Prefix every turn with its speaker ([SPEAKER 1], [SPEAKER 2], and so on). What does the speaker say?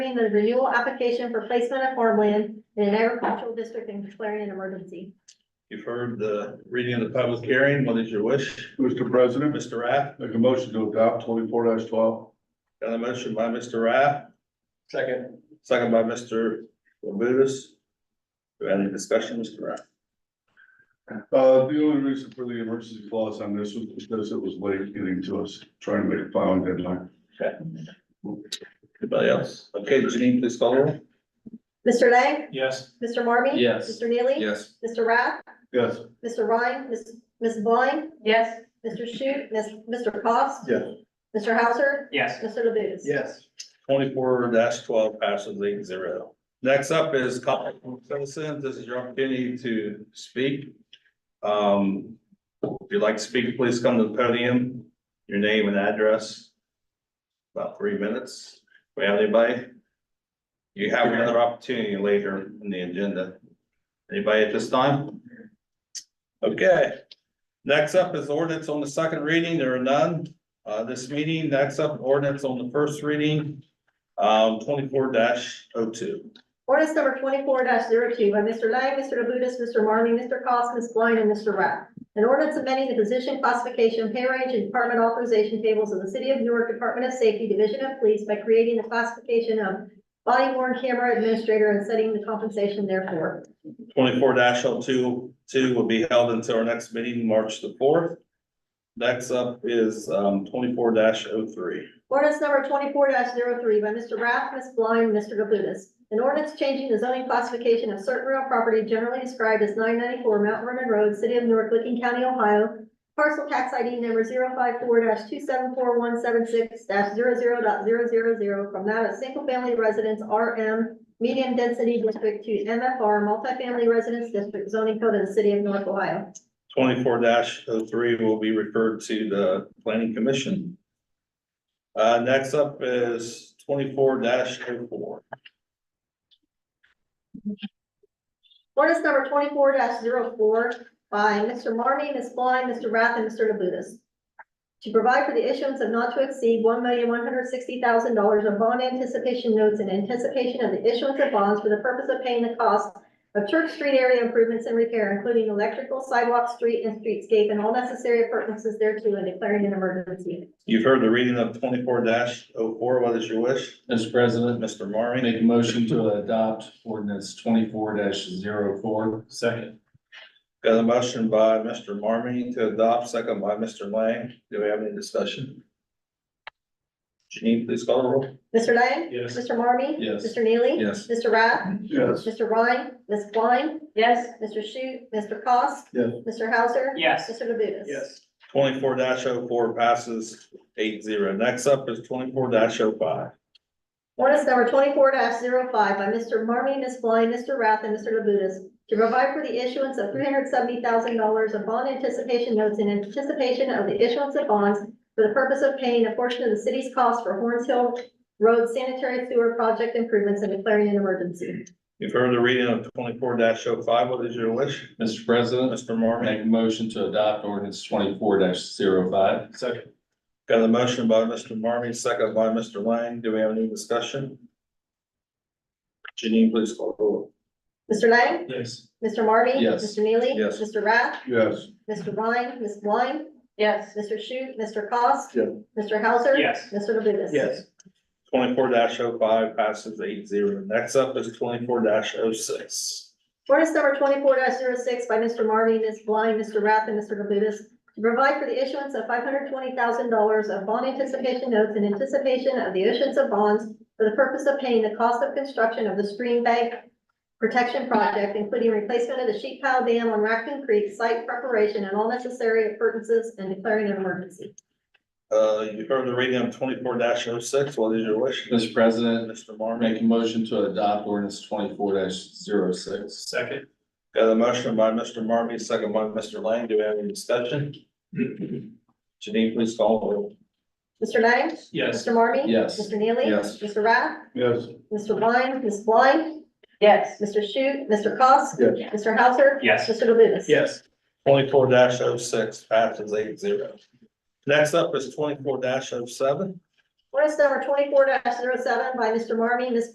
[SPEAKER 1] approving the renewal application for placement of farmland in an agricultural district and declaring an emergency.
[SPEAKER 2] You've heard the reading of the public hearing. What is your wish?
[SPEAKER 3] Mr. President,
[SPEAKER 2] Mr. Rath,
[SPEAKER 3] make a motion to adopt twenty-four twelve.
[SPEAKER 2] got a motion by Mr. Rath. Second. Second by Mr. Labutus. Do you have any discussion, Mr. Rath?
[SPEAKER 3] Uh, the only reason for the emergency clause on this was because it was late getting to us, trying to make a filing deadline.
[SPEAKER 2] Anybody else? Okay, Janine, please call the roll.
[SPEAKER 1] Mr. Lang,
[SPEAKER 4] Yes.
[SPEAKER 1] Mr. Marmy?
[SPEAKER 4] Yes.
[SPEAKER 1] Mr. Neely?
[SPEAKER 2] Yes.
[SPEAKER 1] Mr. Rath,
[SPEAKER 3] Yes,
[SPEAKER 1] Mr. Ryan, Ms. Ms. Blind,
[SPEAKER 5] yes,
[SPEAKER 1] Mr. Shoot, Ms. Mr. Cost?
[SPEAKER 3] Yes.
[SPEAKER 1] Mr. Hauser?
[SPEAKER 4] Yes.
[SPEAKER 1] Mr. Labutus?
[SPEAKER 4] Yes.
[SPEAKER 2] Twenty-four twelve passes eight zero. Next up is comment from citizens. This is your opportunity to speak. Um, if you'd like to speak, please come to the podium, your name and address. About three minutes. We have anybody? You have another opportunity later in the agenda. Anybody at this time? Okay. Next up is ordinance on the second reading. There are none. Uh, this meeting, next up ordinance on the first reading. Um, twenty-four oh 2
[SPEAKER 1] Ordinance number twenty-four 2 by Mr. Lang, Mr. Labutus, Mr. Marmy, Mr. Cost, Ms. Blind, and Mr. Rath. An ordinance amending the position classification, pay range, and department authorization tables of the City of Newark Department of Safety, Division of Police by creating the classification of body worn camera administrator and setting the compensation therefore.
[SPEAKER 2] Twenty-four 2 two will be held until our next meeting, March the fourth. Next up is, um, twenty-four 3
[SPEAKER 1] Ordinance number twenty-four 3 by Mr. Rath, Ms. Blind, Mr. Labutus. An ordinance changing the zoning classification of certain real property generally described as nine ninety-four Mount Vernon Road, City of Newark, Licking County, Ohio. Parcel tax ID number 54 two seven four one seven six 0 from that of single-family residence RM medium density district to MFR multifamily residence district zoning code of the City of North Ohio.
[SPEAKER 2] Twenty-four 3 will be referred to the planning commission. Uh, next up is twenty-four oh 4
[SPEAKER 1] Ordinance number twenty-four 4 by Mr. Marmy, Ms. Blind, Mr. Rath, and Mr. Labutus. To provide for the issuance of not to exceed one million one hundred sixty thousand dollars of bond anticipation notes in anticipation of the issuance of bonds for the purpose of paying the cost of Church Street area improvements and repair, including electrical, sidewalk, street, and streetscape, and all necessary appurtenances thereto, and declaring an emergency.
[SPEAKER 2] You've heard the reading of twenty-four 4 What is your wish,
[SPEAKER 4] Mr. President,
[SPEAKER 2] Mr.
[SPEAKER 4] I
[SPEAKER 2] Marmy?
[SPEAKER 4] make a motion to adopt ordinance twenty-four 4 Second.
[SPEAKER 2] Got a motion by Mr. Marmy to adopt, second by Mr. Lang. Do we have any discussion? Janine, please call the roll.
[SPEAKER 1] Mr. Lang?
[SPEAKER 4] Yes.
[SPEAKER 1] Mr. Marmy?
[SPEAKER 4] Yes.
[SPEAKER 1] Mr. Neely?
[SPEAKER 2] Yes.
[SPEAKER 1] Mr. Rath?
[SPEAKER 3] yes,
[SPEAKER 1] Mr. Ryan? Ms. Blind?
[SPEAKER 5] yes,
[SPEAKER 1] Mr. Shute, Mr. Cost?
[SPEAKER 3] Yes.
[SPEAKER 1] Mr. Hauser?
[SPEAKER 4] Yes.
[SPEAKER 1] Mr. Labutus?
[SPEAKER 2] Twenty-four 4 passes eight zero. Next up is twenty-four oh 5
[SPEAKER 1] Ordinance number twenty-four 5 by Mr. Marmy, Ms. Blind, Mr. Rath, and Mr. Labutus to provide for the issuance of three hundred seventy thousand dollars of bond anticipation notes in anticipation of the issuance of bonds for the purpose of paying a portion of the city's cost for Horns Hill Road sanitary sewer project improvements and declaring an emergency.
[SPEAKER 2] You've heard the reading of twenty-four 5 What is your wish,
[SPEAKER 4] Mr. President,
[SPEAKER 2] Mr.
[SPEAKER 4] I
[SPEAKER 2] Marmy?
[SPEAKER 4] make a motion to adopt ordinance twenty-four 5 Second.
[SPEAKER 2] Got a motion by Mr. Marmy, second by Mr. Lang. Do we have any discussion? Janine, please call the roll.
[SPEAKER 1] Mr. Lang?
[SPEAKER 4] Yes.
[SPEAKER 1] Mr. Marmy?
[SPEAKER 4] Yes.
[SPEAKER 1] Mr. Neely?
[SPEAKER 2] Yes.
[SPEAKER 1] Mr. Rath?
[SPEAKER 3] yes,
[SPEAKER 1] Mr. Ryan? Ms. Blind?
[SPEAKER 5] yes,
[SPEAKER 1] Mr. Shute, Mr. Cost?
[SPEAKER 3] Yeah.
[SPEAKER 1] Mr. Hauser?
[SPEAKER 4] Yes.
[SPEAKER 1] Mr. Labutus?
[SPEAKER 2] Twenty-four 5 passes eight zero. Next up is twenty-four oh 6
[SPEAKER 1] Ordinance number twenty-four 6 by Mr. Marmy, Ms. Blind, Mr. Rath, and Mr. Labutus to provide for the issuance of five hundred twenty thousand dollars of bond anticipation notes in anticipation of the issuance of bonds for the purpose of paying the cost of construction of the stream bank protection project, including replacement of the sheet pile dam on Raccoon Creek, site preparation, and all necessary appurtenances, and declaring an emergency.
[SPEAKER 2] Uh, you've heard the reading of twenty-four 6 What is your wish?
[SPEAKER 4] Mr. President,
[SPEAKER 2] Mr.
[SPEAKER 4] I
[SPEAKER 2] Marmy,
[SPEAKER 4] make a motion to adopt ordinance twenty-four 6 Second.
[SPEAKER 2] got a motion by Mr. Marmy, second by Mr. Lang. Do we have any discussion? Janine, please call the roll.
[SPEAKER 1] Mr. Lang?
[SPEAKER 4] Yes.
[SPEAKER 1] Mr. Marmy?
[SPEAKER 4] Yes.
[SPEAKER 1] Mr. Neely?
[SPEAKER 2] Yes.
[SPEAKER 1] Mr. Rath?
[SPEAKER 3] yes,
[SPEAKER 1] Mr. Blind? Ms. Blind?
[SPEAKER 5] yes,
[SPEAKER 1] Mr. Shute, Mr. Cost?
[SPEAKER 3] Yes.
[SPEAKER 1] Mr. Hauser?
[SPEAKER 4] Yes.
[SPEAKER 1] Mr. Labutus?
[SPEAKER 4] Yes.
[SPEAKER 2] Twenty-four 6 passes eight zero. Next up is twenty-four oh 7
[SPEAKER 1] Ordinance number twenty-four 7 oh by Mr. Marmy, Ms.